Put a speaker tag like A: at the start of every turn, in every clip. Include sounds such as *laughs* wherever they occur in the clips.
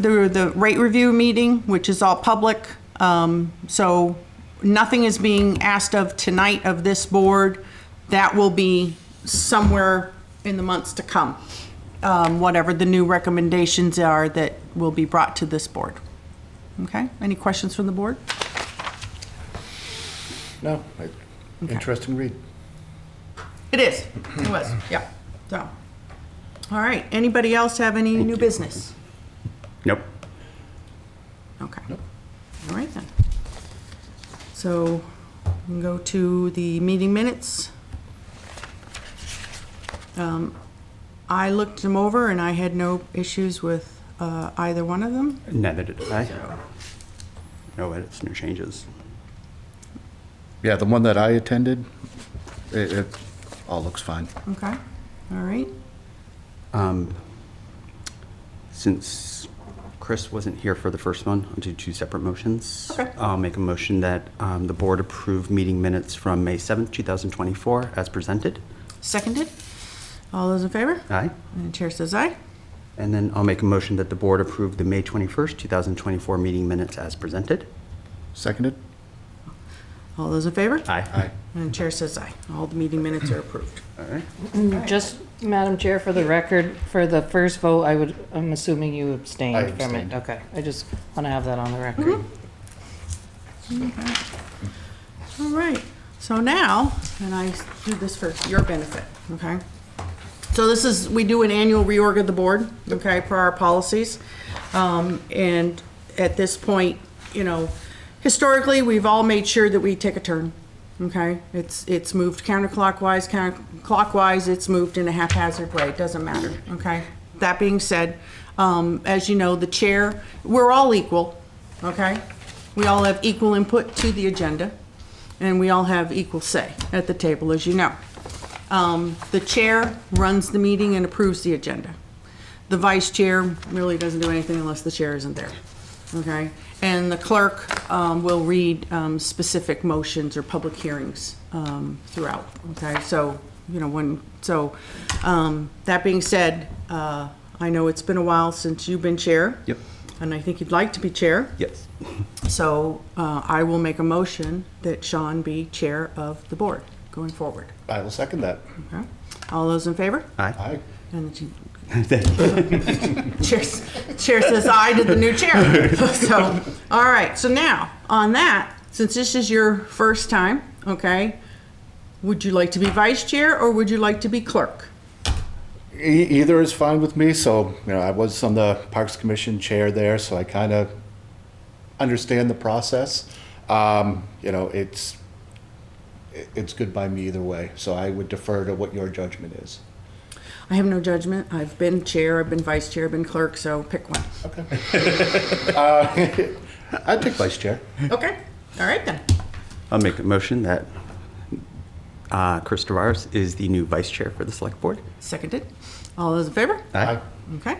A: the, the rate review meeting, which is all public. Um, so nothing is being asked of tonight of this board. That will be somewhere in the months to come. Um, whatever the new recommendations are that will be brought to this board. Okay, any questions from the board?
B: No, I- interesting read.
A: It is, it was, yeah, so. All right, anybody else have any new business?
C: Nope.
A: Okay. All right then. So, we can go to the meeting minutes. Um, I looked them over and I had no issues with uh, either one of them.
C: Neither did I. No edits, no changes.
B: Yeah, the one that I attended, it, it all looks fine.
A: Okay, all right.
C: Um, Since Chris wasn't here for the first one, I'll do two separate motions.
A: Okay.
C: I'll make a motion that um, the board approve meeting minutes from May 7th, 2024, as presented.
A: Seconded. All those in favor?
C: Aye.
A: And the chair says aye.
C: And then I'll make a motion that the board approve the May 21st, 2024 meeting minutes as presented.
B: Seconded?
A: All those in favor?
C: Aye.
A: And the chair says aye. All the meeting minutes are approved.
C: All right.
D: Just, Madam Chair, for the record, for the first vote, I would, I'm assuming you
B: I
D: abstained from
B: abstained. Mm-hmm.
D: it. Okay, I just want to have that on the record.
A: All right, so now, and I do this for your benefit, okay? So this is, we do an annual reorg of the board, okay, for our policies. Um, and at this point, you know, historically, we've all made sure that we take a turn, okay? It's, it's moved counterclockwise, counterclockwise, it's moved in a haphazard way, it doesn't matter, okay? That being said, um, as you know, the chair, we're all equal, okay? We all have equal input to the agenda, and we all have equal say at the table, as you know. Um, The chair runs the meeting and approves the agenda. The vice chair really doesn't do anything unless the chair isn't there, okay? And the clerk um, will read um, specific motions or public hearings um, throughout, okay? So, you know, when, so, um, that being said, uh, I know it's been a while since you've been chair.
C: Yep.
A: And I think you'd like to be chair.
C: Yes.
A: So uh, I will make a motion that Sean be chair of the board going forward.
B: I will second that.
A: Okay? All those in favor?
C: Aye.
B: Aye.
A: And the chair- *laughs* chair, s- chair says aye to the new chair. So, all right, so now, on that, since this is your first time, okay, would you like to be vice chair or would you like to be clerk?
B: E- either is fine with me, so, you know, I was on the Parks Commission chair there, so I kind of understand the process. Um, you know, it's, it- it's good by me either way, so I would defer to what your judgment is.
A: I have no judgment. I've been chair, I've been vice chair, I've been clerk, so pick one.
B: Okay. I'd take vice chair.
A: Okay, all right then.
C: I'll make a motion that uh, Chris Tavares is the new vice chair for the select board.
A: Seconded. All those in favor?
B: Aye.
A: Okay,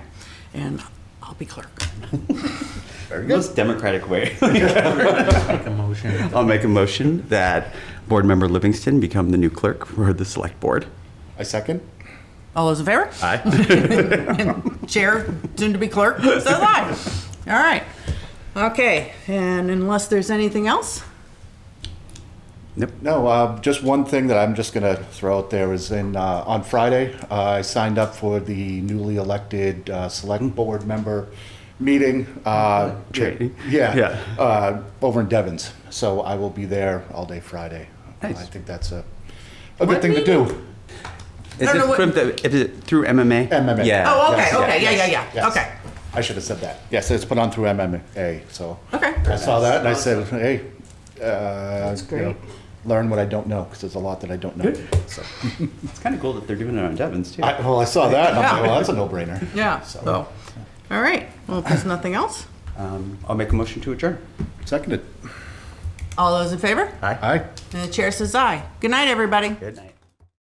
A: and I'll be clerk.
B: Very good.
C: Most democratic way. I'll make a motion that board member Livingston become the new clerk for the select board.
B: I second.
A: All those in favor?
C: Aye.
A: Chair, soon to be clerk, says aye. All right. Okay, and unless there's anything else?
C: *laughs* Nope.
B: No, uh, just one thing that I'm just going to throw out there is in, uh, on Friday, uh, I signed up for the newly elected uh, select board member meeting. uh,
C: Training.
B: Yeah,
C: Yeah.
B: uh, over in Devon's. So I will be there all day Friday. I
C: Nice.
B: think that's a, a
A: What
B: good thing to do.
C: Is
A: I don't
C: it
A: know what-
C: from the- is it through MMA?
B: MMA.
C: Yeah.
A: Oh, okay,
B: yes,
A: okay, yeah, yeah,
B: Yes.
A: yeah, okay,
B: I should have said that. Yes, it's put on through MMA, so.
A: okay.
B: I saw that and I said, hey, uh, you know,
D: great.
B: learn what I don't know, because there's a lot that I don't know. So.
C: It's kind of cool that they're doing it on Devon's too.
B: I, well, I saw that, and I'm like,
A: Yeah.
B: well, that's a no-brainer.
A: Yeah,
B: So,
A: so, all right, well, if there's nothing else,
C: Um, I'll make a motion to adjourn.
B: seconded.
A: all those in favor?
B: Aye.
A: And the chair says aye. Good night, everybody.
C: Good night.